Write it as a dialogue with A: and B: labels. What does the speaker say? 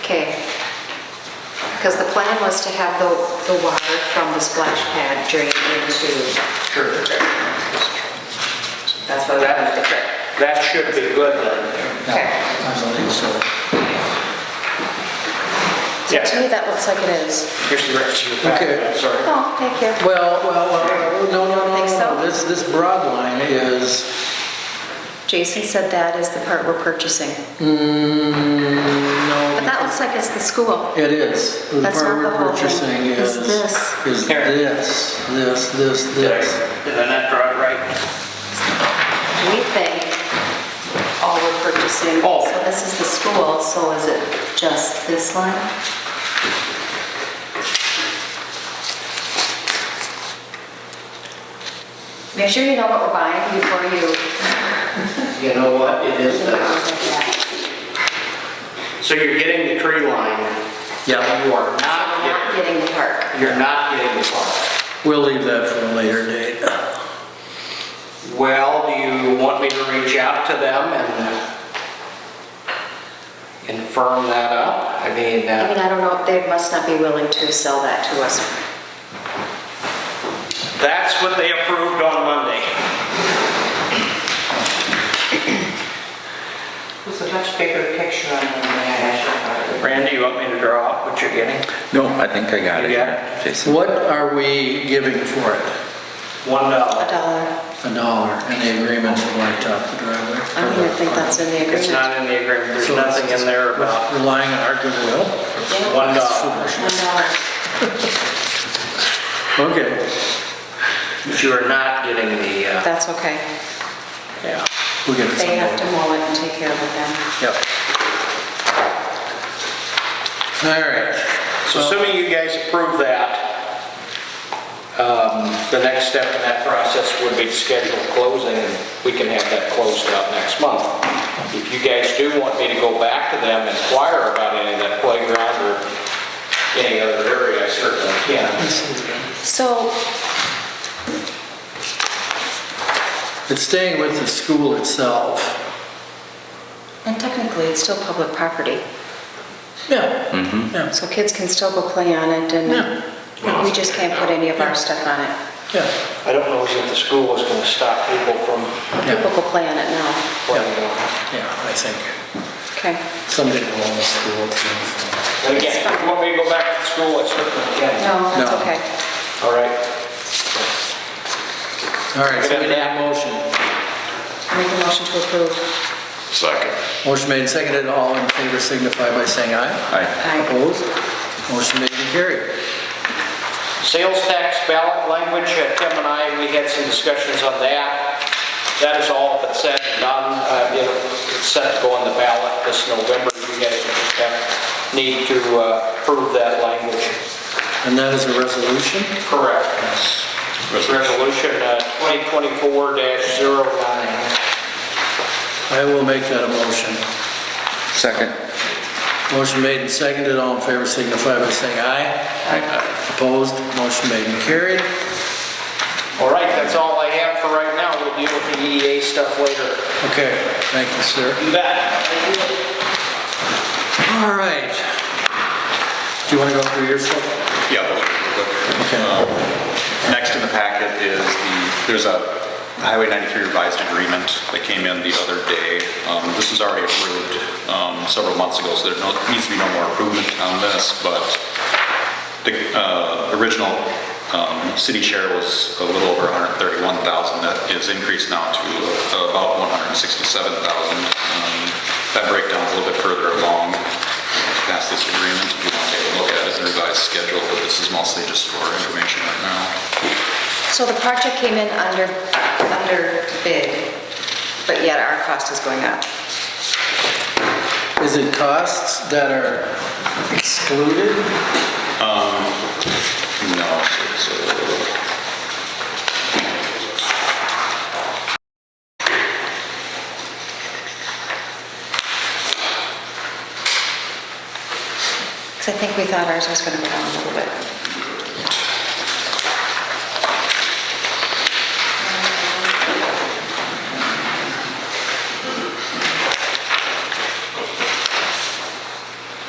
A: Okay. Because the plan was to have the, the water from the splash pad drain into, that's what we have to correct.
B: That should be good then.
A: Okay.
C: I don't think so.
A: To me, that looks like it is.
B: Here's the rest of your packet,
C: Okay.
B: I'm sorry.
A: Oh, thank you.
C: Well, well, well, no, no, no,
A: Think so?
C: no. This, this broad line is,
A: Jason said that is the part we're purchasing.
C: mm,
A: But
C: no,
A: that looks like it's the school.
C: it is. The
A: That's
C: part
A: not the
C: we're
A: whole thing.
C: purchasing
A: It's
C: is,
A: this.
C: is
B: Here.
C: this, this, this,
B: Did I,
C: this.
B: did I not draw it right?
A: We think all we're purchasing.
B: Oh.
A: So this is the school, so is it just this line? Make sure you know what we're buying before you.
B: You know what, it is this.
A: We're
B: So you're getting the tree line,
C: Yeah,
B: you are not
A: not
B: getting,
A: getting the park.
B: you're not getting the park.
C: we'll leave that for a later date.
B: Well, do you want me to reach out to them and confirm that up? I mean,
A: I
B: uh,
A: mean, I don't know, they must not be willing to sell that to us.
B: that's what they approved on Monday.
D: It's a much bigger picture on the national park.
B: Randy, you want me to draw out what you're getting?
E: No, I think I got it.
B: You got it?
E: Jason.
C: What are we giving for it?
B: One
A: A
B: dollar.
A: dollar.
C: A dollar in the agreement to blacktop the driveway?
A: I don't even think that's in the agreement.
B: It's not in the agreement, there's
C: So it's-
B: nothing in there about
C: Relying on our goodwill?
B: one dollar.
A: One dollar.
C: Okay,
B: But you are not getting the, uh,
A: That's okay.
B: yeah.
C: we'll get it
A: They have to
C: someday.
A: mow it and take care of it then.
C: Yep. All right.
B: So assuming you guys approve that, um, the next step in that process would be to schedule closing, and we can have that closed out next month. If you guys do want me to go back to them and inquire about any of that playground or any other area, I certainly can.
A: So
C: It's staying with the school itself.
A: And technically, it's still public property,
C: Yeah. Yeah,
A: so kids can still go play on it, and
B: Yeah.
A: we just can't put any of our stuff on it.
C: yeah.
B: I don't know if the school is gonna stop people from
C: Yeah.
A: People go play on it now.
B: playing on it.
C: Yeah, I think
A: Okay.
C: someday we'll own the school too.
B: And again, if you want me to go back to the school, I certainly can.
A: No, that's
C: No.
A: okay.
B: All right.
C: so. All right, so we need a motion.
A: Make a motion to approve.
E: Second.
C: Motion made and seconded, all in favor signify by saying aye.
E: Aye.
A: Aye.
C: Opposed? Motion made and carried.
B: Sales tax ballot language, uh, Tim and I, we had some discussions on that. That is all but said and done. Uh, you know, It's set to go on the ballot this November. You guys have- need to uh, approve that language.
C: And that is a resolution?
B: Correct. It's Resolution uh, 2024-09.
C: I will make that a motion.
E: Second.
C: Motion made and seconded, all in favor signify by saying aye. Opposed? Motion made and carried.
B: All right, that's all I have for right now. We'll deal with the EDA stuff later.
C: Okay, thank you, sir.
B: You bet.
C: All right. Do you want to go through your stuff?
E: Yeah. those are
C: Okay.
E: good. Next in the packet is the, there's a Highway 93 revised agreement that came in the other day. Um, This was already approved um, several months ago, so there no- needs to be no more improvement on this, but the uh, original um, city share was a little over 131,000. That is increased now to about 167,000. Um, That breakdown's a little bit further along past this agreement. If you want to take a look at it, the revised schedule, but this is mostly just for information right now.
A: So the project came in under, under bid, but yet our cost is going up.
C: Is it costs that are excluded?
E: No, it's, uh,
A: Because I think we thought ours was going to go down a little bit.